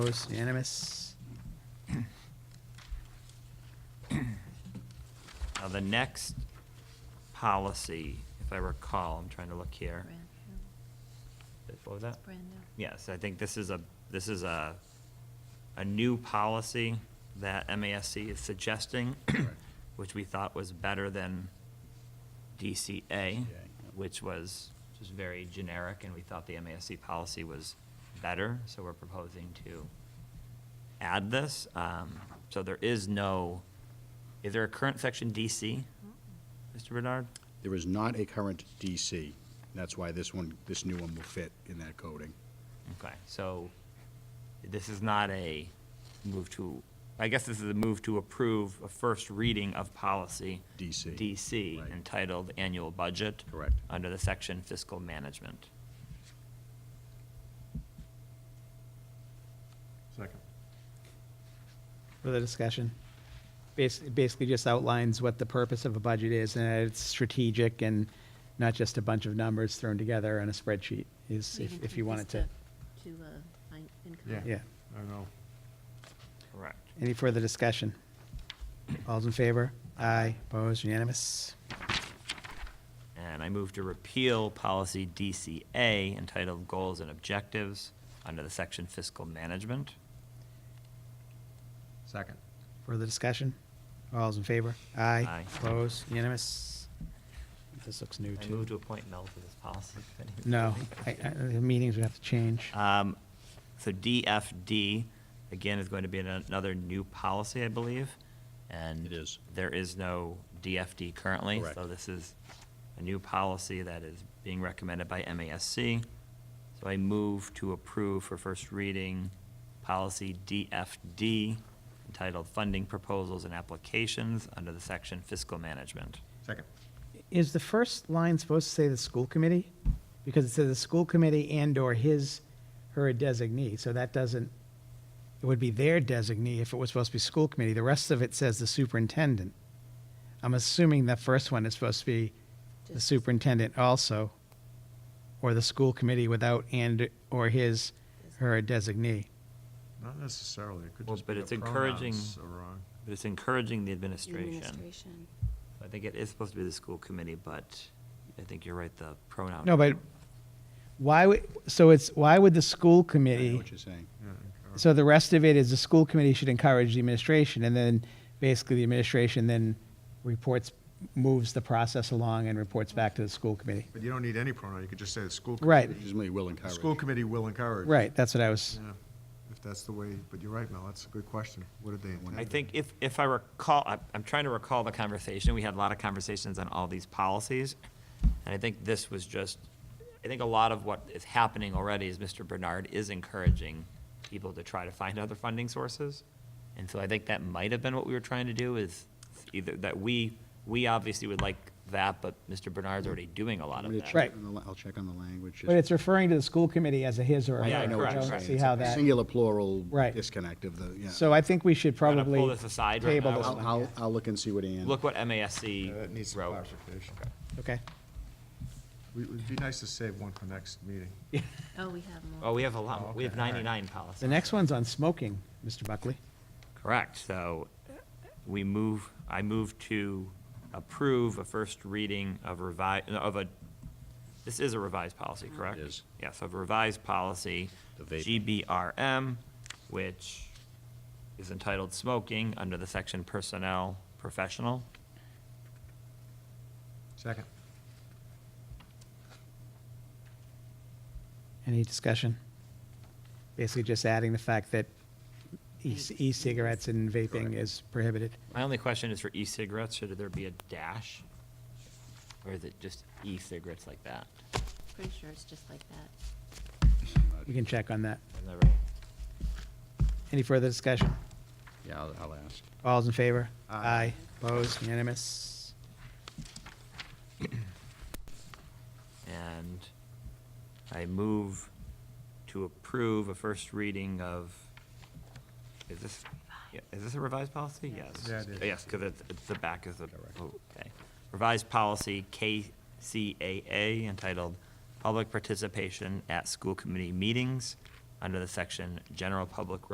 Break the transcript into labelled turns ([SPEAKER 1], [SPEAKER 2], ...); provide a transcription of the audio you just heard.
[SPEAKER 1] Opposed, unanimous.
[SPEAKER 2] Now, the next policy, if I recall, I'm trying to look here.
[SPEAKER 3] Brand new,
[SPEAKER 2] What was that?
[SPEAKER 3] brand new.
[SPEAKER 2] Yes, I think this is a, this is a, a new policy that MASC is suggesting, which we thought was better than DCA, which was just very generic, and we thought the MASC policy was better, so we're proposing to add this. Um, So there is no, is there a current section DC, Mr. Bernard?
[SPEAKER 4] There is not a current DC. That's why this one, this new one will fit in that coding.
[SPEAKER 2] Okay, so this is not a move to, I guess this is a move to approve a first reading of policy.
[SPEAKER 4] DC,
[SPEAKER 2] DC,
[SPEAKER 4] right.
[SPEAKER 2] entitled Annual Budget.
[SPEAKER 4] Correct.
[SPEAKER 2] Under the section Fiscal Management.
[SPEAKER 5] Second.
[SPEAKER 1] Further discussion? Basically, basically just outlines what the purpose of a budget is, and it's strategic and not just a bunch of numbers thrown together on a spreadsheet, is,
[SPEAKER 3] We
[SPEAKER 1] if-
[SPEAKER 3] can
[SPEAKER 1] if
[SPEAKER 3] take
[SPEAKER 1] you
[SPEAKER 3] this
[SPEAKER 1] wanted to.
[SPEAKER 3] To, uh, fin- income.
[SPEAKER 5] Yeah.
[SPEAKER 1] Yeah.
[SPEAKER 5] I know.
[SPEAKER 2] Correct.
[SPEAKER 1] Any further discussion? All's in favor? Aye, opposed, unanimous.
[SPEAKER 2] And I move to repeal policy DCA entitled Goals and Objectives under the section Fiscal Management.
[SPEAKER 5] Second.
[SPEAKER 1] Further discussion? All's in favor? Aye.
[SPEAKER 2] Aye.
[SPEAKER 1] Opposed, unanimous. This looks new,
[SPEAKER 2] I
[SPEAKER 1] too.
[SPEAKER 2] move to appoint Mel to this policy committee.
[SPEAKER 1] No, I, I, the meetings would have to change.
[SPEAKER 2] Um, So DFD, again, is going to be an- another new policy, I believe, and.
[SPEAKER 4] It is.
[SPEAKER 2] There is no DFD currently.
[SPEAKER 4] Correct.
[SPEAKER 2] So this is a new policy that is being recommended by MASC. So I move to approve for first reading, policy DFD, entitled Funding Proposals and Applications, under the section Fiscal Management.
[SPEAKER 5] Second.
[SPEAKER 1] Is the first line supposed to say the school committee? Because it says the school committee and/or his, her designee, so that doesn't, it would be their designee if it was supposed to be school committee. The rest of it says the superintendent. I'm assuming the first one is supposed to be the
[SPEAKER 3] Just-
[SPEAKER 1] superintendent also, or the school committee without and/or his, her designee.
[SPEAKER 5] Not necessarily. It could
[SPEAKER 2] Well,
[SPEAKER 5] just
[SPEAKER 2] but
[SPEAKER 5] be a
[SPEAKER 2] it's encouraging-
[SPEAKER 5] pronouns are wrong.
[SPEAKER 2] But it's encouraging the administration.
[SPEAKER 3] Administration.
[SPEAKER 2] I think it is supposed to be the school committee, but I think you're right, the pronoun.
[SPEAKER 1] No, but why would, so it's, why would the school
[SPEAKER 4] I
[SPEAKER 1] committee?
[SPEAKER 4] know what you're saying.
[SPEAKER 5] Yeah, encourage-
[SPEAKER 1] So the rest of it is the school committee should encourage the administration, and then basically the administration then reports, moves the process along and reports back to the school committee.
[SPEAKER 5] But you don't need any pronoun. You could just say the school.
[SPEAKER 1] Right.
[SPEAKER 4] It is me will
[SPEAKER 5] committee- The
[SPEAKER 4] encourage.
[SPEAKER 5] school committee will encourage.
[SPEAKER 1] Right, that's what I was,
[SPEAKER 5] Yeah, if that's the way, but you're right, Mel. That's a good question. What did they intend?
[SPEAKER 2] I think if, if I recall, I- I'm trying to recall the conversation, we had a lot of conversations on all these policies, and I think this was just, I think a lot of what is happening already is Mr. Bernard is encouraging people to try to find other funding sources, and so I think that might have been what we were trying to do, is either, that we, we obviously would like that, but Mr. Bernard's already doing a lot
[SPEAKER 4] I'm
[SPEAKER 2] of
[SPEAKER 4] gonna
[SPEAKER 2] that.
[SPEAKER 4] check
[SPEAKER 1] Right.
[SPEAKER 4] on the la- I'll check on the language. just-
[SPEAKER 1] but it's referring to the school committee as a his or a her.
[SPEAKER 2] Yeah,
[SPEAKER 4] I know what
[SPEAKER 2] correct,
[SPEAKER 1] I
[SPEAKER 4] you're
[SPEAKER 1] don't
[SPEAKER 2] right.
[SPEAKER 4] saying.
[SPEAKER 1] see
[SPEAKER 4] It's
[SPEAKER 1] how
[SPEAKER 4] a
[SPEAKER 1] that,
[SPEAKER 4] Singular plural
[SPEAKER 1] Right.
[SPEAKER 4] disconnect of the, yeah.
[SPEAKER 1] so I think we should
[SPEAKER 2] I'm gonna
[SPEAKER 1] probably
[SPEAKER 2] pull this aside right
[SPEAKER 1] table
[SPEAKER 2] now.
[SPEAKER 1] this
[SPEAKER 4] I'll,
[SPEAKER 1] one.
[SPEAKER 4] I'll, I'll look and see what Ann.
[SPEAKER 2] Look what
[SPEAKER 5] Yeah, That Uh, needs
[SPEAKER 2] MASC
[SPEAKER 5] some
[SPEAKER 2] wrote.
[SPEAKER 5] clarification.
[SPEAKER 1] Okay,
[SPEAKER 5] We- It'd be nice to save one for next meeting.
[SPEAKER 3] Oh, we have more.
[SPEAKER 2] Oh, we have a lot,
[SPEAKER 5] Oh,
[SPEAKER 2] we have
[SPEAKER 5] okay, all right.
[SPEAKER 2] 99 policies.
[SPEAKER 1] the next one's on smoking, Mr. Buckley.
[SPEAKER 2] Correct, so we move, I move to approve a first reading of revised, of a, this is a revised policy, correct?
[SPEAKER 4] It is.
[SPEAKER 2] Yes, of revised policy,
[SPEAKER 4] The vaping.
[SPEAKER 2] GBRM, which is entitled Smoking, under the section Personnel Professional.
[SPEAKER 5] Second.
[SPEAKER 1] Any discussion? Basically just adding the fact that e- e-cigarettes and vaping is prohibited.
[SPEAKER 2] My only question is for e-cigarettes, should there be a dash? Or is it just e-cigarettes like that?
[SPEAKER 3] Pretty sure it's just like that.
[SPEAKER 1] We can check on that.
[SPEAKER 2] I've never-
[SPEAKER 1] Any further discussion?
[SPEAKER 4] Yeah, I'll, I'll ask.
[SPEAKER 1] All's in favor?
[SPEAKER 5] Aye.
[SPEAKER 1] Opposed, unanimous?
[SPEAKER 2] And I move to approve a first reading of, is this, yeah, is this a revised policy? Yes.
[SPEAKER 5] Yeah, it is.
[SPEAKER 2] Yes, because it's, it's the back is the, okay. Revised policy KCAA entitled Public Participation at School Committee Meetings under the section General Public